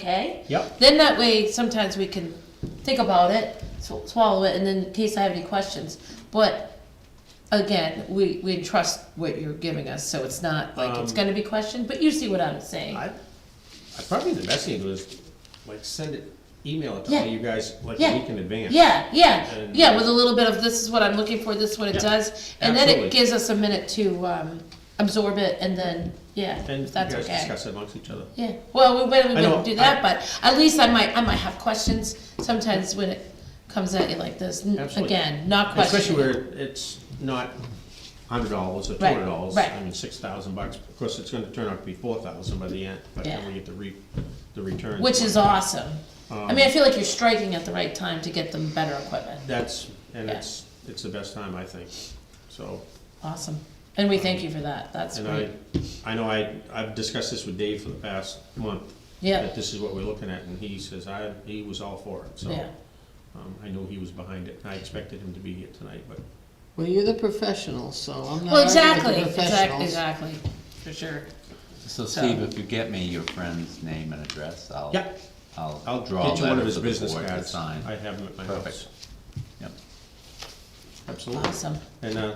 okay. Yep. Then that way, sometimes we can think about it, sw- swallow it, and then in case I have any questions. But again, we, we trust what you're giving us, so it's not like it's Um, gonna be questioned, but you see what I'm saying. I, I probably the best thing to do is like send it, email it to Yeah. all you guys like Yeah. a week in advance. Yeah, yeah, And- yeah, with a little bit of, this is what I'm looking for, this is what it Yeah, does, and then absolutely. it gives us a minute to, um, absorb it, and then, yeah, And if you that's guys okay. discuss it amongst each other. Yeah, well, we wouldn't, we I know, wouldn't do that, but at least I might, I might have questions sometimes when it comes at you like this, N- Absolutely. again, not Especially questioning. where it's not hundred dollars or two Right, hundred dollars, right. I mean, six thousand bucks, of course, it's gonna turn out to be four thousand by the end, but Yeah. then we get the re, the return. Um, Which is awesome, I mean, I feel like you're striking at the right time to get them better equipment, That's, and Yeah. it's, it's the best time, I think, so. awesome, and we thank you for that, that's And I, great, I know I, I've discussed this with Dave for the past month. Yeah. That this is what we're looking at, and he says, I, he was all for it, so. yeah. Um, I know he was behind it, I expected him to be here tonight, but Well, you're the professional, so I'm not Well, arguing exactly, with the exactly, professionals. exactly, for sure, So So- Steve, if you get me your friend's name and address, I'll. Yeah. I'll. I'll draw get you one letter of his for the business board to cards. Sign. I have him at my house. Perfect. Yep. Absolutely. awesome, And, uh,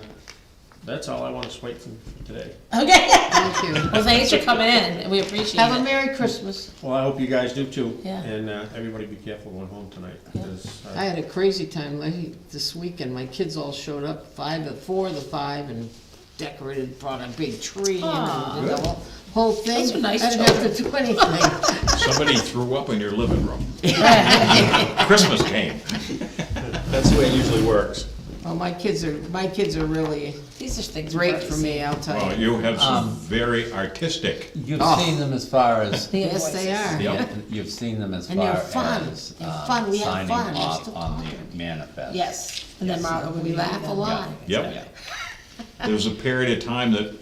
that's all I want to wait for today. okay, Thank you. well, thanks for coming in, we appreciate Have a it. Merry Christmas. Well, I hope you guys do too. Yeah. And, uh, everybody be careful going home tonight, because, I uh, had a crazy time like, this weekend. My kids all showed up, five, of- four of the five, and decorated, brought a big tree Aw. and did the whole, whole thing. Those are nice I didn't have to do anything. Somebody threw up in your living room. Christmas came. that's the way it usually works. Well, Oh, my kids are, my kids are really These are things. we've great already for seen. me, I'll tell Well, you. you have some Um, very artistic, You've Oh. seen them as far as. The Yes, they invoices. are. Yep. You've seen them as And they're far fun. as. They're um, fun. We have signing fun. We're off still on the talking. manifest. Yes, and then Yes. Marla would We be laugh a done. lot. Yeah. yep. There was a period of time that,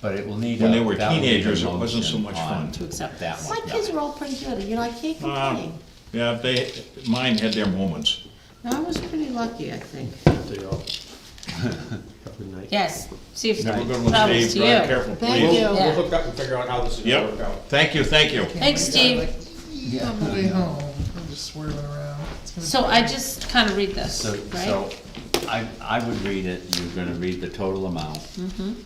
But it will need. when a- they were that will need a teenagers, it wasn't so motion much on fun. To accept That this. one. My kids are all pretty good, you know, I can't complain. uh, yeah, they, mine had their moments. No, I was pretty lucky, I think. They all- Every night. Yes, see if. Have a good one, Problems Steve, to drive you. careful, Thank please. you. We'll, we'll Yeah. hook up and figure out how this is gonna work out. Yep, thank you, thank you. Thanks, Steve. Yeah. On the way home, I'm just swerving around. It's gonna So I just kind of read this, So, so, right? I, I would read it, you're gonna read the total amount,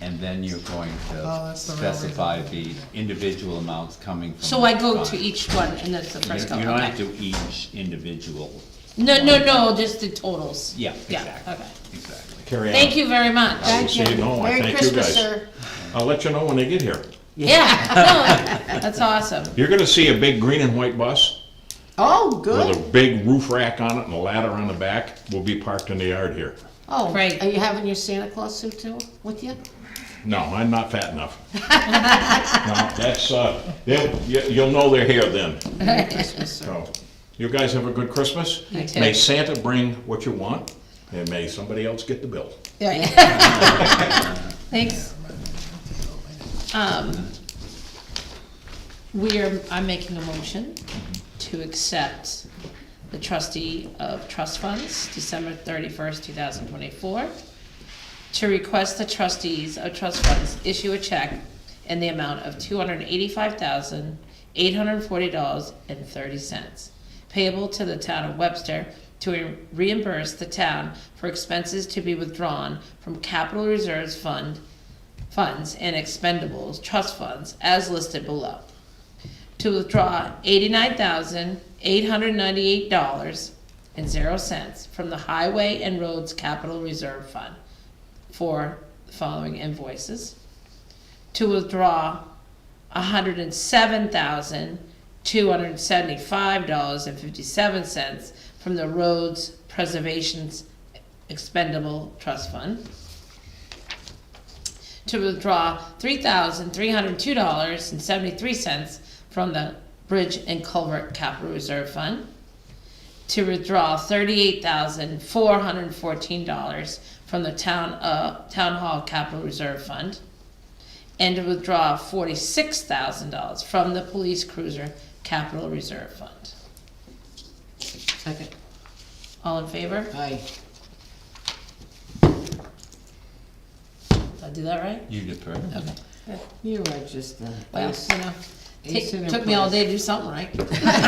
and then you're going Oh, to that's the right way to specify the individual amounts coming from. So I go each to each one and that's the You first you couple, don't have Oh, okay. to each individual. No, no, no, just the totals. Yeah, Yeah, exactly, okay. exactly. Carry on. Thank you very much. I will see you at home. I Merry thank you Christmas, guys. sir. I'll let you know when they get here. Yeah, no, that's awesome. You're gonna see a big green and white bus Oh, good. with a big roof rack on it and a ladder on the back. Will be parked in the yard here. Oh, Great. are you having your Santa Claus suit too with you? No, I'm not fat enough. No, that's, uh, they'll- you- you'll know they're here then. So, You guys have a good Christmas. You too. May Santa bring what you want, and may somebody else get the bill. Yeah, yeah. Thanks. Um, We are, I'm making a motion to accept the trustee of trust funds, December thirty-first, two thousand twenty-four, to request the trustees of trust funds issue a check in the amount of two hundred and eighty-five thousand, eight hundred and forty dollars and thirty cents, payable to the town of Webster to reimburse the town for expenses to be withdrawn from capital reserves fund, funds and expendables, trust funds, as listed below to withdraw eighty-nine thousand, eight hundred ninety-eight dollars and zero cents from the Highway and Roads Capital Reserve Fund for the following invoices. To withdraw hundred and seven thousand, two hundred and seventy-five dollars and fifty-seven cents from the Roads Preservation's Expendable Trust Fund to withdraw three thousand three hundred two dollars and seventy-three cents from the Bridge and Culvert Capital Reserve Fund, to withdraw thirty-eight thousand four hundred fourteen dollars from the Town, uh, Town Hall Capital Reserve Fund, and to withdraw forty-six thousand dollars from the Police Cruiser Capital Reserve Fund. Second. All in favor? Aye. Did I do that right? You defer. Okay. You are just the Well, best. you know, Take- Took me all day to do something right.